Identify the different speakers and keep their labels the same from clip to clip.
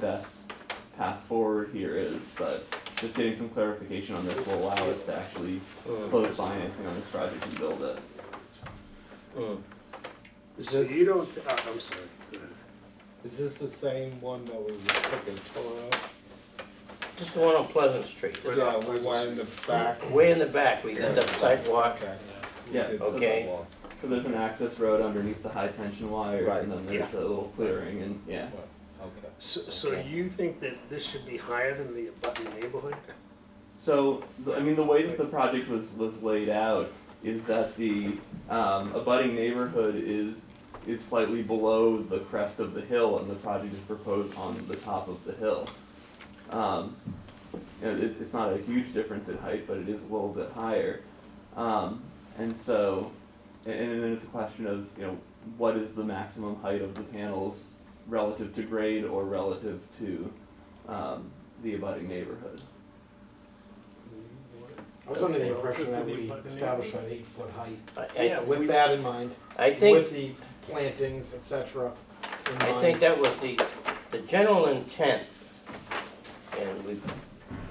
Speaker 1: best path forward here is, but just getting some clarification on this will allow us to actually close financing on this project and build it.
Speaker 2: So you don't, uh, I'm sorry, go ahead.
Speaker 3: Is this the same one that we fucking tore up?
Speaker 4: This is the one on Pleasant Street.
Speaker 2: Right
Speaker 1: uh,
Speaker 3: Yeah,
Speaker 2: off
Speaker 3: we went in the back.
Speaker 4: Way in the back, we did the sidewalk.
Speaker 3: Okay. We
Speaker 1: Yeah,
Speaker 3: did the
Speaker 4: okay.
Speaker 3: sidewalk.
Speaker 1: So there's an access road underneath the high tension wires
Speaker 3: Right.
Speaker 1: and then there's a little clearing and yeah.
Speaker 3: Well, Okay.
Speaker 2: So, so you think that this should be higher than the abutting neighborhood?
Speaker 1: So, the- I mean, the way that the project was, was laid out is that the, um, abutting neighborhood is, is slightly below the crest of the hill, and the project is proposed on the top of the hill. Um, you know, it's, it's not a huge difference in height, but it is a little bit higher. Um, and so, and, and then it's a question of, you know, what is the maximum height of the panels relative to grade or relative to, um, the abutting neighborhood?
Speaker 5: I was under the
Speaker 2: Okay.
Speaker 5: impression that
Speaker 2: Relative to
Speaker 5: we
Speaker 2: the abutting
Speaker 5: established an eight-foot height.
Speaker 4: I-
Speaker 5: Yeah,
Speaker 4: I,
Speaker 5: with that in mind,
Speaker 4: I
Speaker 5: with
Speaker 4: think,
Speaker 5: the plantings, et cetera, in mind.
Speaker 4: I think that was the, the general intent. And we,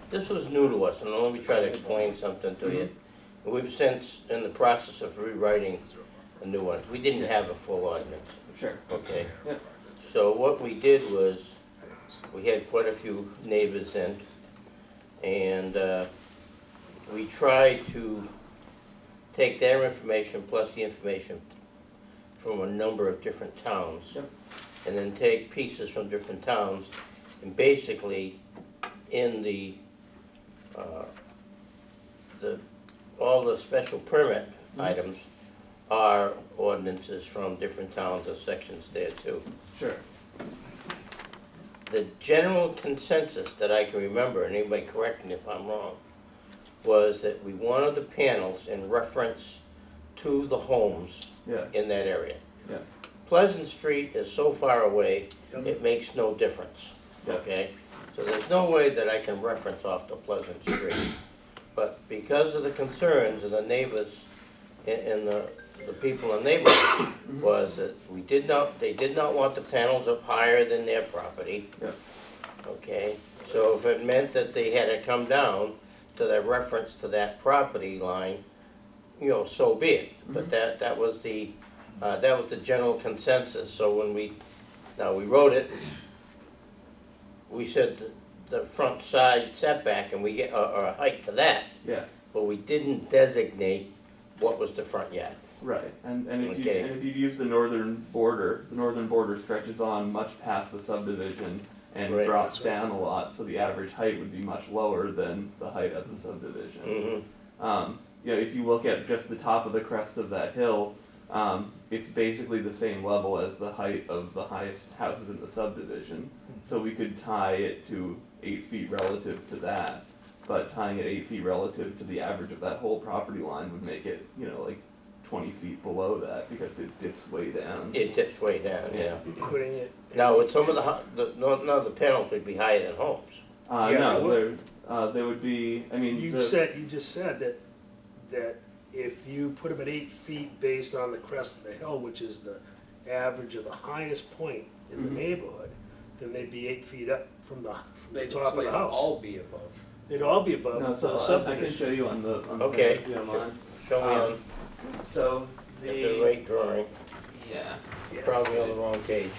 Speaker 4: this was new to us, and let me try to explain something to you.
Speaker 5: Mm-hmm.
Speaker 4: We've since, in the process of rewriting the new ones, we didn't have a full ordinance.
Speaker 1: Sure.
Speaker 4: Okay.
Speaker 1: Yeah.
Speaker 4: So what we did was, we had quite a few neighbors in, and uh, we tried to take their information plus the information from a number of different towns.
Speaker 1: Yep.
Speaker 4: And then take pieces from different towns, and basically, in the, uh, the, all the special permit
Speaker 1: Mhm.
Speaker 4: items are ordinances from different towns or sections there too.
Speaker 1: Sure.
Speaker 4: The general consensus that I can remember, and anybody correct me if I'm wrong, was that we wanted the panels in reference to the homes
Speaker 1: Yeah.
Speaker 4: in that area.
Speaker 1: Yeah.
Speaker 4: Pleasant Street is so far away,
Speaker 2: Yep.
Speaker 4: it makes no difference,
Speaker 1: Yeah.
Speaker 4: okay? So there's no way that I can reference off to Pleasant Street. But because of the concerns of the neighbors and, and the, the people in the
Speaker 1: Mm-hmm.
Speaker 4: neighborhood was that we did not, they did not want the panels up higher than their property.
Speaker 1: Yep.
Speaker 4: Okay, so if it meant that they had to come down to their reference to that property line, you know, so be it.
Speaker 1: Mm-hmm.
Speaker 4: But that, that was the, uh, that was the general consensus, so when we, now we wrote it, we said the, the front side setback and we get, or, or a height to that,
Speaker 1: Yeah.
Speaker 4: but we didn't designate what was the front yard.
Speaker 1: Right. And and if you
Speaker 4: Okay.
Speaker 1: and if you use the northern border, the northern border stretches on much past the subdivision and
Speaker 4: Right.
Speaker 1: drops down a lot, so the average height would be much lower than the height of the subdivision.
Speaker 4: Mhm.
Speaker 1: Um, you know, if you look at just the top of the crest of that hill, um, it's basically the same level as the height of the highest houses in the subdivision.
Speaker 2: Hmm.
Speaker 1: So we could tie it to eight feet relative to that, but tying it eight feet relative to the average of that whole property line would make it, you know, like twenty feet below that because it dips way down.
Speaker 4: It dips way down, yeah.
Speaker 2: Putting it.
Speaker 4: Now, with some of the, hu- the, none none of the panels would be higher than homes.
Speaker 1: Uh,
Speaker 2: Yeah, it
Speaker 1: no, there,
Speaker 2: would.
Speaker 1: uh, there would be, I mean,
Speaker 2: You
Speaker 1: the-
Speaker 2: said, you just said that, that if you put them at eight feet based on the crest of the hill, which is the average of the highest point in the
Speaker 1: Mhm.
Speaker 2: neighborhood, then they'd be eight feet up from the, from the
Speaker 6: They'd
Speaker 2: top of
Speaker 6: they'd
Speaker 2: the house.
Speaker 6: all be above.
Speaker 2: They'd all be
Speaker 1: no,
Speaker 2: above
Speaker 1: so
Speaker 2: the
Speaker 1: I- I can
Speaker 2: subdivision.
Speaker 1: show you on the, on the.
Speaker 4: Okay,
Speaker 1: if you don't
Speaker 4: sure.
Speaker 1: mind.
Speaker 4: Show me on
Speaker 1: Um, So
Speaker 4: the
Speaker 1: the,
Speaker 4: right drawing,
Speaker 1: yeah.
Speaker 2: Yeah.
Speaker 4: probably on the wrong page.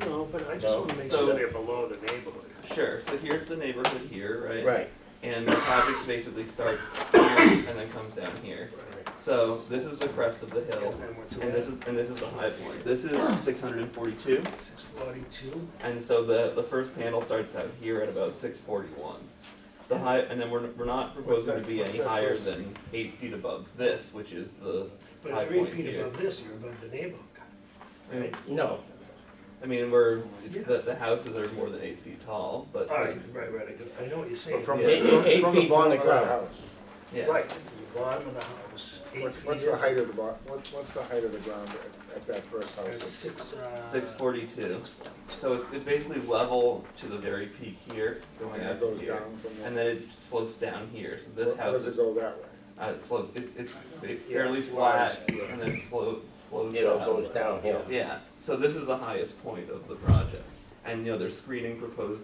Speaker 2: No, but I just
Speaker 4: No.
Speaker 2: wanna make
Speaker 1: So-
Speaker 2: sure they're below the neighborhood.
Speaker 1: Sure. So here's the neighborhood here, right?
Speaker 4: Right,
Speaker 1: And the project basically starts here and then comes down here. So this is the crest of the hill,
Speaker 2: And what's
Speaker 1: and this is and this is the high point. This is 642,
Speaker 2: Six forty-two?
Speaker 1: and so the the first panel starts out here at about 641. The high, and then we're, we're not proposing to be any higher than eight feet above this, which is the
Speaker 2: But
Speaker 1: high
Speaker 2: if you're eight
Speaker 1: point
Speaker 2: feet
Speaker 1: here.
Speaker 2: above this, you're above the neighborhood.
Speaker 1: Right.
Speaker 4: no,
Speaker 1: I mean, we're
Speaker 2: Yeah.
Speaker 1: the, the houses are more than eight feet tall, but
Speaker 2: All right, right, right, I do- I know what you're saying.
Speaker 5: From
Speaker 4: eight,
Speaker 5: the-
Speaker 4: eight
Speaker 5: from the
Speaker 4: feet from
Speaker 5: bottom
Speaker 4: the
Speaker 5: of that
Speaker 4: ground.
Speaker 5: house.
Speaker 1: yeah.
Speaker 2: Right, the bottom of the house, eight
Speaker 3: What's,
Speaker 2: feet.
Speaker 3: what's the
Speaker 2: in.
Speaker 3: height of the bar, what's, what's the height of the ground at, at that first
Speaker 2: It's
Speaker 3: house?
Speaker 2: Six, uh.
Speaker 1: 642. So it's, it's basically level to the very peak here, going
Speaker 3: And
Speaker 1: up
Speaker 3: it goes
Speaker 1: here,
Speaker 3: down from there?
Speaker 1: and then it slopes down here. So this
Speaker 3: Or- or
Speaker 1: house
Speaker 3: does it
Speaker 1: is
Speaker 3: go that way?
Speaker 1: uh, it slopes. It's it's it
Speaker 2: Yeah,
Speaker 1: fairly
Speaker 2: it
Speaker 1: flat,
Speaker 2: flies,
Speaker 3: yeah.
Speaker 1: and then slope slows
Speaker 4: It all
Speaker 1: down.
Speaker 4: goes downhill.
Speaker 1: Yeah. So this is the highest point of the project. and you know there's screening proposed